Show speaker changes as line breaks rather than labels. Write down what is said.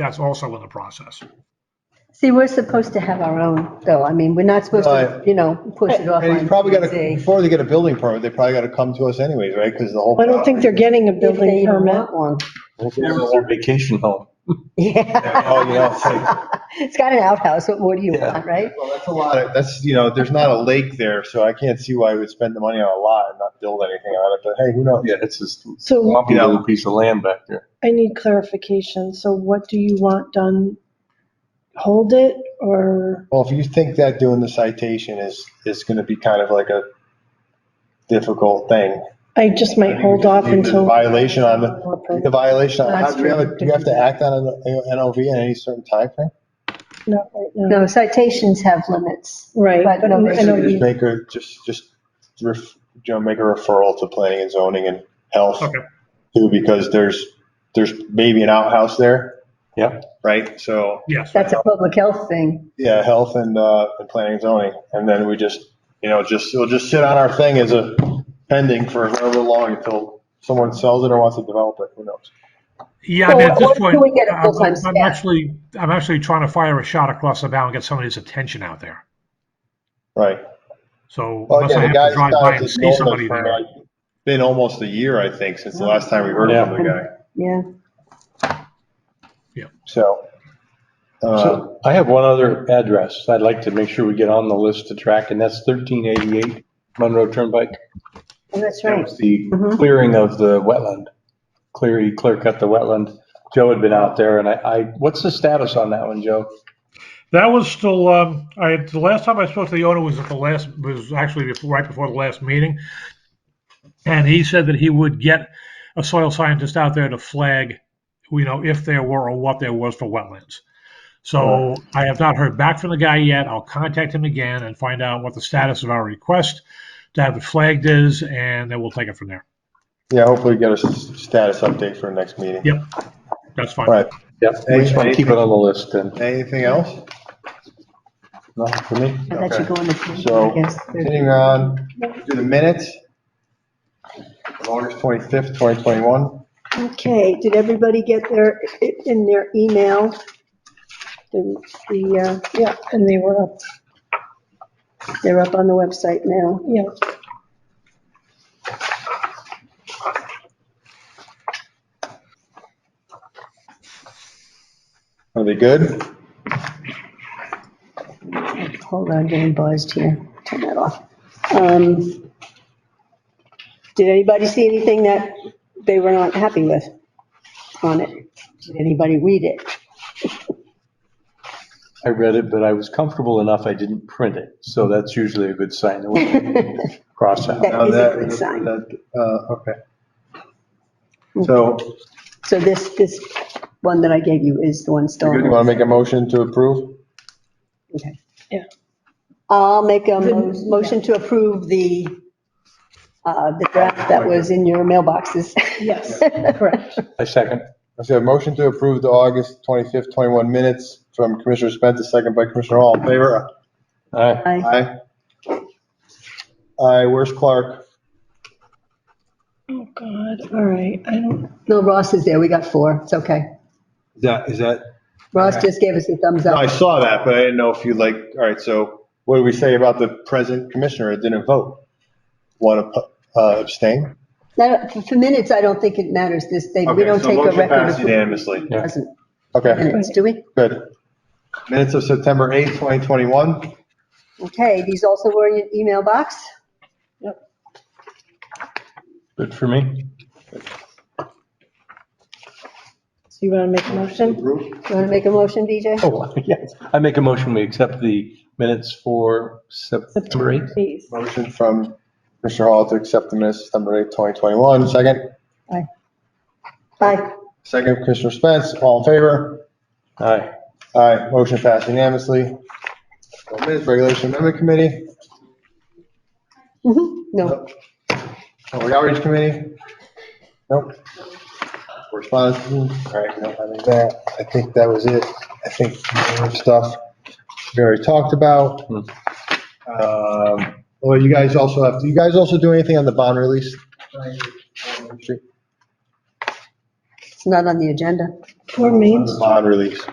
that's also in the process.
See, we're supposed to have our own, though. I mean, we're not supposed to,
Right.
you know, push it off.
And he's
on
probably got to,
TZ.
before they get a building permit, they probably got to come to us anyways, right? Because the whole.
I don't think they're getting a
If they
building
even
permit.
want one.
Never want vacation home.
Yeah.
Oh, you know, it's like-
It's got an outhouse. What more do you
Yeah.
want, right?
well, that's a lot of- That's, you know, there's not a lake there, so I can't see why we would spend the money on a lot and not build anything on it, but hey, who knows?
Yeah, it's just a
So
lumpy little piece of land back there.
I need clarification. So what do you want done? Hold it or,
Well, if you think that doing the citation is, is going to be kind of like a difficult thing.
I just might hold off
Leave the
until.
Violation on the, the violation, on-
That's
do we have, a-
true.
do we have to act on an uh, NOV in any certain timeframe?
Not right now.
No, citations have limits.
Right,
But
but
no,
I know
Basically, Just
you,
make a, just, just, ref- you know, make a referral to planning and zoning and health.
Okay.
Too, because there's, there's maybe an outhouse there,
Yeah,
right? So,
Yes.
That's a public health thing.
yeah, health and, uh, and planning and zoning. And then we just, you know, just, it'll just sit on our thing as a pending for however long until someone sells it or wants to develop it, who knows?
Yeah, I mean, at
Or-
this
or
point,
do we get a
I'm
full-time
I'm
staff?
actually, I'm actually trying to fire a shot across the bow and get somebody's attention out there.
Right.
So
Well,
unless I
again, the
have to
guy's
drive by
got
and
this
see
illness
somebody
for,
there.
like, Been almost a year, I think, since the last time we heard from the guy,
Yeah.
so. uh,
So I have one other address I'd like to make sure we get on the list to track, and that's 1388 Monroe Turnpike.
Oh, That's
That
right.
was the
Mhm.
clearing of the wetland. Clear, he clear cut the wetland. Joe had been out there, and I, I, what's the status on that one, Joe?
That was still, um, I, the last time I spoke to the owner was at the last, was actually before, right before the last meeting. And he said that he would get a soil scientist out there to flag, you know, if there were or what there was for wetlands. So I have not heard back from the guy yet. I'll contact him again and find out what the status of our request to have it flagged is, and then we'll take it from there.
Yeah, hopefully get a s- status update for next meeting.
Yep. That's fine.
All right,
Yep, we just want to keep it on the list, and
anything else?
not for me.
Yeah, That should go in the future,
So,
I guess.
Continuing on, do the minutes. of August 25th, 2021.
okay, did everybody get their, in their email? The, the, uh, yeah, and they were up,
They're up on the website now.
yeah.
Are they good?
Hold on, getting buzzed here. Turn that off. Um, Did anybody see anything that they were not happy with on it? Did anybody read it?
I read it, but I was comfortable enough I didn't print it, so that's usually a good sign. that we're- Cross out.
That
No,
is a
that-
good sign. Mm-hmm.
that, uh, Okay. So,
So this, this one that I gave you is the one still.
you want to make a motion to approve?
Okay.
Yeah.
I'll make a mo- motion to approve the, uh, the draft that was in your mailboxes.
Yes, correct.
I second.
I said, motion to approve the August 25th, 21 minutes from Commissioner Spence, second by Commissioner Hall. In Favor?
Aye.
Aye.
Aye. Aye, where's Clark?
Oh, God, all right, I don't,
No, Ross is there. We got four. It's okay.
Is that, is that?
Ross just gave us a thumbs
I
up.
saw that, but I didn't know if you like, all right, so what do we say about the present commissioner that didn't vote? Want to uh, abstain?
Now, for- For minutes, I don't think it matters this, they, we
Okay,
don't
so
take a
motion
record
passed
of
Unanimously.
Yeah.
present
Okay,
minutes, do we?
good. Minutes of September 8th, 2021.
Okay, these also were in your email box.
Good for me.
so you want to make a motion?
Approved.
You want to make a motion, VJ?
Oh, yes. I make a motion, we accept the minutes for September 8th.
Please.
Motion from Commissioner Hall to accept the minutes of September 8th, 2021. Second,
Aye.
second Commissioner Spence, all in favor?
Aye.
Aye, motion passed unanimously. Minutes Regulation Amendment Committee,
Mhm. No,
Public Oh, Outreach Committee? Nope. Correspondence? All right, we don't have any there. I think that was it. I think the stuff we already talked about.
Hmm.
Um, Well, you guys also have, do you guys also do anything on the bond release?
it's not on the agenda.
Poor Main
The bond release.